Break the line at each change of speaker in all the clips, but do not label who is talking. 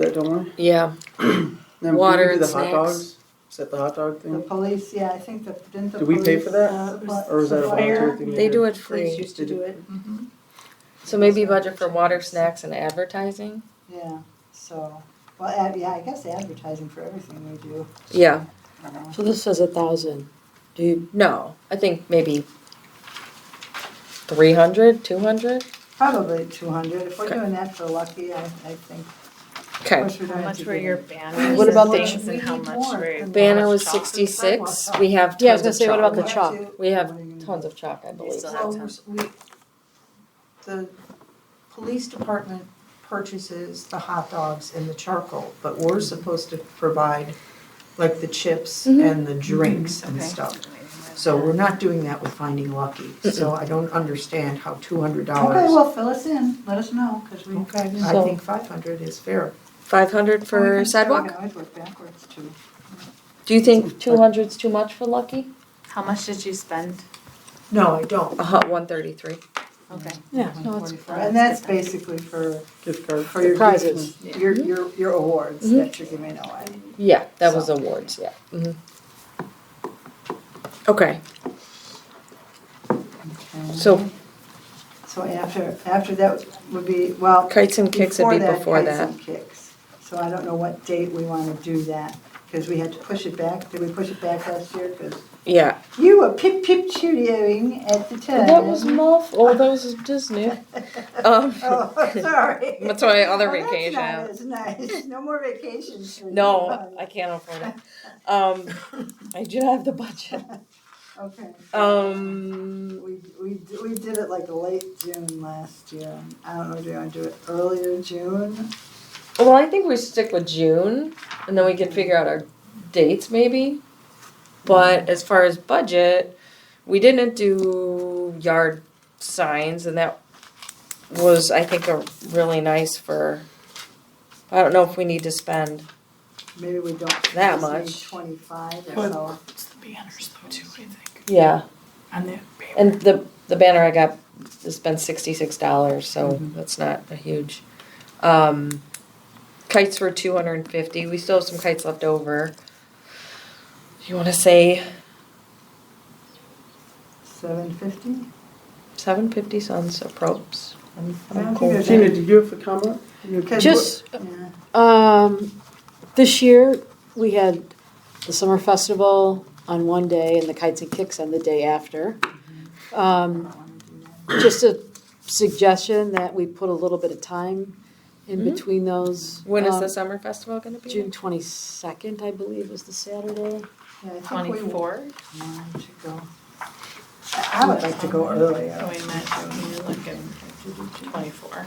that Delmar?
Yeah,
Then
Water
we do
and
the
snacks.
hot dogs. Is that the hot dog
The
thing?
police, yeah, I think the, didn't the
Did Mm. we
police?
pay for that?
uh, what-
Or is that a volunteer
fire?
thing? you
they
do?
do it
Police
free.
used to do
Mm-hmm.
it, hmm
So maybe budget for water, snacks, and advertising?
yeah, so, well, ad- yeah, I guess advertising for everything we do.
Yeah.
I don't know.
So this says a thousand. Do you,
No, I think maybe 300, 200?
Probably two hundred, if we're
Okay.
doing that for Lucky, I, I think.
Okay.
How much were your banners
What
and
about the
things
ch-
and how
We need
much
more.
were?
Banner was
how much chalk?
66. We have
Yeah, I was
tons of
gonna say,
chalk.
what about the chalk?
We have tons of chalk, I believe.
still have
Well,
tons.
we, the police department purchases the hot dogs and the charcoal, but we're supposed to provide like the chips
Mhm.
and the drinks and
Okay.
stuff. So we're not doing that with Finding Lucky, so I don't understand how two hundred dollars.
Okay, well, fill us in, let us know, because we.
Okay, I
So-
think five hundred is fair.
500
Well, we
for
can- We
sidewalk?
can always work backwards too.
Do you think 200's too much for Lucky?
How much did you spend?
No, I don't.
Uh-huh, 133.
Okay.
yeah, no, it's
145.
And that's basically for,
Gift card.
for your
Prizes.
gifts, your,
Mm-hmm.
your, your awards
Mhm.
that you're giving away.
Yeah, that was awards, yeah. Mhm. Okay, so
So after, after that would be, well.
kites and kicks would be before
Before that,
that.
Kites and Kicks. So I don't know what date we want to do that, because we had to push it back. Did we push it back last year? Because
Yeah.
you were pip pip cheerioing at the time.
That was mouthful, that was Disney. Um,
Oh, sorry.
that's my other
Well,
vacation.
That's not as nice. No more vacations. for you.
No, I can't afford it. Um, I do not have the budget.
Okay.
Um,
We, we, we did it like late June last year. I don't know, do you want to do it earlier June?
well, I think we stick with June, and then we can figure out our dates maybe. But as far as budget, we didn't do yard signs, and that was, I think, a really nice for. I don't know if we need to spend.
Maybe we don't.
That
just need
much.
Twenty-five or
But-
so.
It's the banners though too, I think,
Yeah,
on that paper.
and the the banner I got has been sixty six dollars, so that's not a huge. Um, kites were two hundred and fifty. We still have some kites left over. You want to say
Seven fifty?
seven fifty sons of probes? I'm,
I
I'm
don't
cool.
think
with
there's
Tina,
that.
did you have a comment?
just,
Yeah.
um, this year, we had the summer festival on one day and the kites and kicks on the day after. Um, just a suggestion that we put a little bit of time in
Mhm.
between those.
When is
Um,
the summer festival going to be?
June twenty-second, I believe, is the Saturday.
Yeah, I think we want
Twenty-four?
to go. I I would like to go
Oh,
earlier.
wait a minute, you're looking, twenty-four.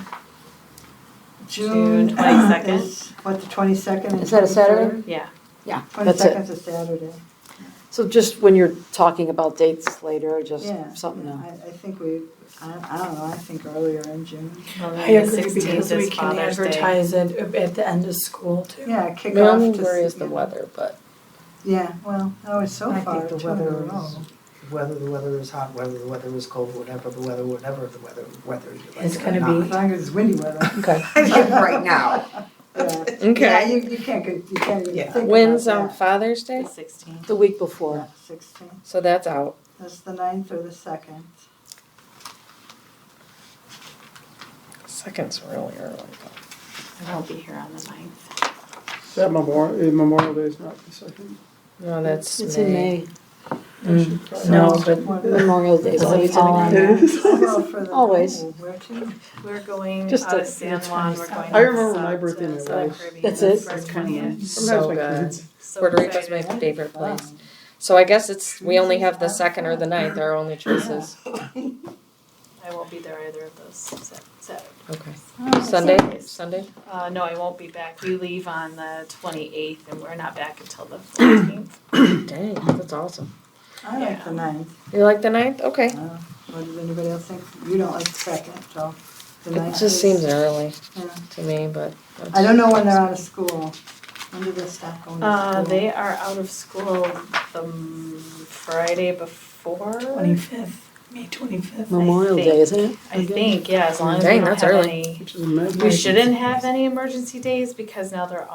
June
June 22nd?
is, What, the twenty-second
Is that a Saturday?
Yeah.
Yeah, that's it.
Twenty-second's a Saturday.
So just when you're talking about dates later, just
Yeah.
something
yeah,
to
I, I think we, I, I don't know, I think earlier in June.
Well,
I
then the
agree because
sixteenth
we
is
can
Father's Day.
advertise it at the end of school too.
Yeah, kick
My
off
only
to.
worry is
s-
the
yeah.
weather, but
Yeah, well, oh, it's so
I
far,
think the
two in a
weather
row.
is, whether the weather is hot, whether the weather is cold, whatever the weather, whatever the weather, whether you like
It's
it or
gonna
not.
be-
As long as it's windy weather,
okay,
Right now.
yeah. Yeah,
okay.
you, you can't, go- you can't even think
Yeah.
about that.
When's on Father's Day?
The sixteenth.
the week before.
Sixteen.
So that's out.
That's the ninth or the second.
Second's really early.
I won't be here on the ninth.
Is that Memorial, Memorial Day is not the second.
though. No, that's
It's in May.
I should probably-
No, but
Memorial Day is
Does it
always
fall
on
on
there.
It
that?
is.
I'll go for the-
Always.
oh, Where to?
We're going
Just
out
the-
of San Juan, we're going.
I remember my
south
birthday
to uh,
in
Southern
Hawaii.
Caribbean.
That's it?
First twentieth.
Sometimes
So
my
good.
kids,
So
Puerto Rico's my
excited.
favorite place. So I guess it's, we only have the second or the ninth, our only choices.
Oh,
I won't be there either of those Sa- Saturdays.
Okay.
Oh,
Sunday, Sunday?
Uh, no, I won't be back. We leave on the twenty-eighth and we're not back until the fourteenth.
Dang, that's awesome.
I like the ninth.
You like the ninth? Okay.
Uh, What does anybody else think? You don't like the second, so the
It
ninth
just
is-
seems early
yeah.
to me, but.
I don't know when they're out of school. When do they stop going to
Uh,
school?
they are out of school the m- Friday before.
Twenty-fifth. May twenty-fifth.
Memorial Day, isn't it?
I think, yeah, as long as we
Dang,
don't
that's
have
early.
any,
which is amazing.
we shouldn't have any emergency days because now they're